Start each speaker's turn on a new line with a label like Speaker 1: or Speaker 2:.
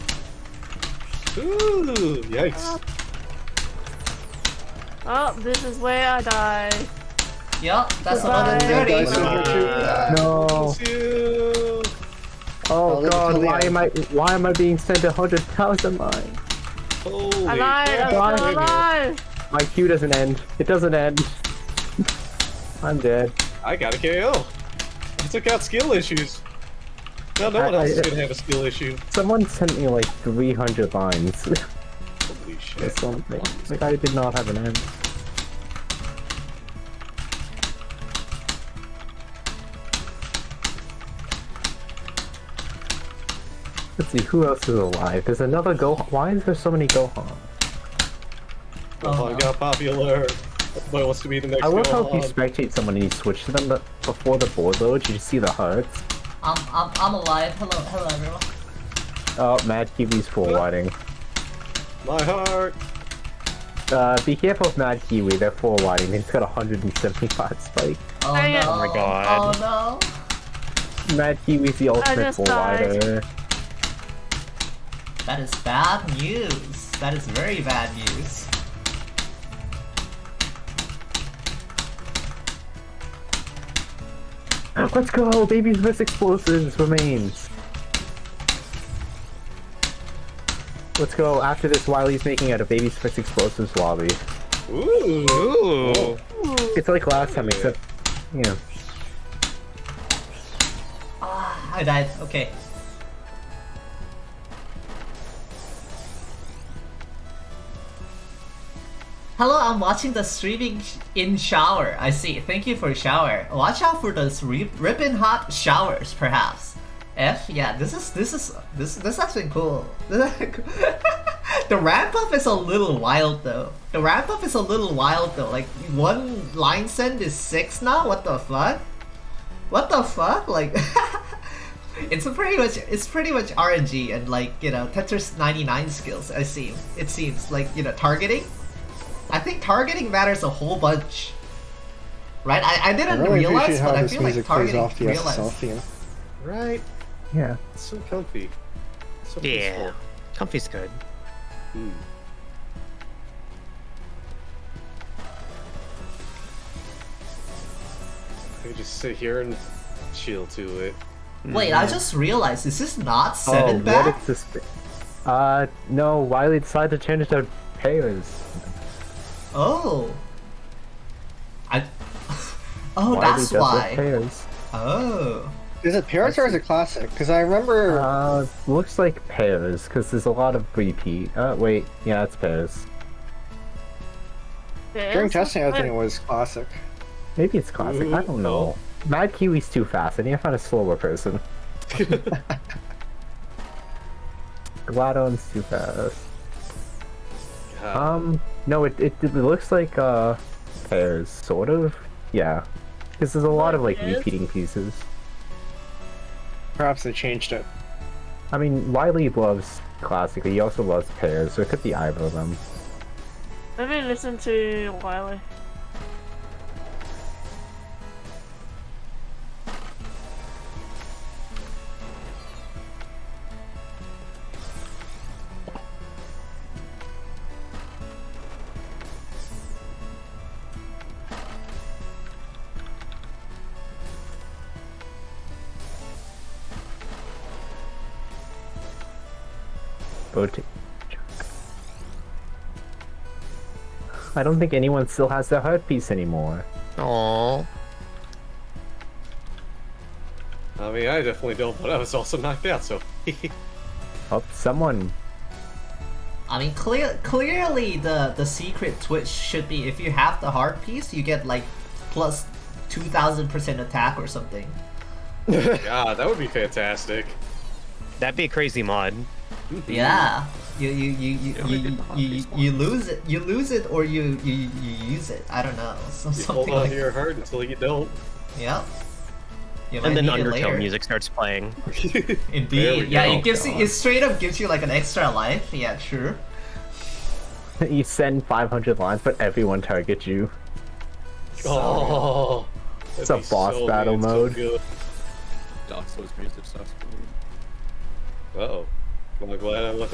Speaker 1: Ooh, yikes.
Speaker 2: Oh, this is where I die.
Speaker 3: Yup, that's
Speaker 2: Goodbye.
Speaker 3: another 30.
Speaker 1: Dice over two.
Speaker 3: Ah.
Speaker 4: No.
Speaker 1: Two.
Speaker 4: Oh
Speaker 3: Oh,
Speaker 4: god,
Speaker 3: totally
Speaker 4: why
Speaker 3: out.
Speaker 4: am I why am I being sent a hundred thousand mines?
Speaker 1: Holy
Speaker 2: I lied,
Speaker 1: crap.
Speaker 2: I'm still alive!
Speaker 4: My queue doesn't end. It doesn't end. I'm dead.
Speaker 1: I got a KO. I took out skill issues. Now no one
Speaker 4: I- I-
Speaker 1: else is gonna have a skill issue.
Speaker 4: Someone sent me like 300 lines or
Speaker 1: Holy shit.
Speaker 4: something. Like I did not have an end. Let's see who else is alive. There's another Go. Why is there so many Gohan?
Speaker 1: Oh, I
Speaker 3: no.
Speaker 1: got popular. Everybody wants to be the next
Speaker 4: Uh-huh. I love
Speaker 1: Gohan.
Speaker 4: how if you spectate someone and you switch to them, but before the board loads, you just see the hearts.
Speaker 3: I'm, I'm, I'm alive. Hello, hello everyone.
Speaker 4: Oh, Mad Kiwi's forwarding.
Speaker 1: My heart.
Speaker 4: Uh, be careful of Mad Kiwi, they're forwarding. He's got 175 spikes.
Speaker 3: Oh
Speaker 2: Dang
Speaker 3: no.
Speaker 2: it. Oh
Speaker 5: my God.
Speaker 3: Oh no.
Speaker 4: Mad Kiwi's the ultimate
Speaker 2: just
Speaker 4: forwarder.
Speaker 3: That is bad news. That is very bad news.
Speaker 4: Let's go! Babies vs. Explosives remains. Let's go. After this, Wiley's making out a Babies vs. Explosives lobby.
Speaker 1: Ooh.
Speaker 5: Ooh.
Speaker 4: It's like last time, except, you know.
Speaker 3: Ah, I died. Okay. Hello, I'm watching the streaming sh- in shower. I see. Thank you for shower. Watch out for those re- ripping hot showers, perhaps. F, yeah, this is this is this this has been cool. This has been cool. the ramp up is a little wild though. The ramp up is a little wild though. Like one line send is six now. What the fuck? what the fuck? Like, it's a pretty much it's pretty much RNG and like you know Tetris 99 skills. I seem it seems like you know targeting. I think targeting matters a whole bunch, right? I, I
Speaker 6: I
Speaker 3: didn't
Speaker 6: really
Speaker 3: realize,
Speaker 6: appreciate how
Speaker 3: but I
Speaker 6: this
Speaker 3: feel like
Speaker 6: music plays
Speaker 3: targeting
Speaker 6: off the
Speaker 3: realize.
Speaker 6: SSL, you know?
Speaker 1: Right.
Speaker 4: Yeah.
Speaker 1: It's so comfy. So
Speaker 5: Yeah. Comfy's good.
Speaker 1: peaceful. Ooh. I could just sit here and chill to it.
Speaker 3: Wait,
Speaker 5: Mm-hmm.
Speaker 3: I just realized is this not
Speaker 4: Oh,
Speaker 3: seven
Speaker 4: what
Speaker 3: back?
Speaker 4: if this? Uh, no. Wiley decided to change their payers.
Speaker 3: Oh, I. oh,
Speaker 4: Wiley
Speaker 3: that's
Speaker 4: does their
Speaker 3: why.
Speaker 4: Pairs.
Speaker 3: Oh,
Speaker 6: Is it Parrots or is it Classic? Because I remember
Speaker 4: Uh, looks like pairs because there's a lot of repeat. Uh, wait, yeah, it's pairs.
Speaker 6: during testing, I think it was Classic.
Speaker 4: Maybe it's classic. I don't know. Mad Kiwi's too fast. I need to find a slower person. Gladon's too fast.
Speaker 1: God.
Speaker 4: Um, no, it it, it looks like uh pairs, sort of. Yeah, because there's a lot of like
Speaker 2: Yes.
Speaker 4: repeating pieces.
Speaker 6: Perhaps they changed it.
Speaker 4: I mean, Wiley loves classic. He also loves pairs, so it could be either of them.
Speaker 2: Let me listen to Wiley.
Speaker 4: Rotate. I don't think anyone still has their heart piece anymore.
Speaker 5: Aww.
Speaker 1: I mean, I definitely don't, but I was also knocked out, so.
Speaker 4: Oh, someone.
Speaker 3: I mean, clear, clearly the the secret twitch should be if you have the heart piece, you get like plus two thousand percent attack or something.
Speaker 1: God, that would be fantastic.
Speaker 5: That'd be a crazy mod.
Speaker 3: Yeah, you you you you,
Speaker 5: Yeah, we
Speaker 3: you,
Speaker 5: did the heart
Speaker 3: you,
Speaker 5: piece
Speaker 3: you, lose it, you lose it, or you you, you use it. I don't know, some,
Speaker 1: You
Speaker 3: something
Speaker 1: hold on
Speaker 3: like
Speaker 1: to your heart until you don't.
Speaker 3: yep. You might
Speaker 5: And then
Speaker 3: need it
Speaker 5: Undertale
Speaker 3: later.
Speaker 5: music starts playing.
Speaker 1: There we
Speaker 3: Indeed, yeah,
Speaker 1: go. Oh,
Speaker 3: it gives you, it straight up gives you like an extra life. Yeah, sure.
Speaker 4: you send 500 lines, but everyone targets you.
Speaker 1: Oh,
Speaker 4: It's a boss battle mode.
Speaker 7: Dark Souls music sucks for me.
Speaker 1: Oh, I'm glad I left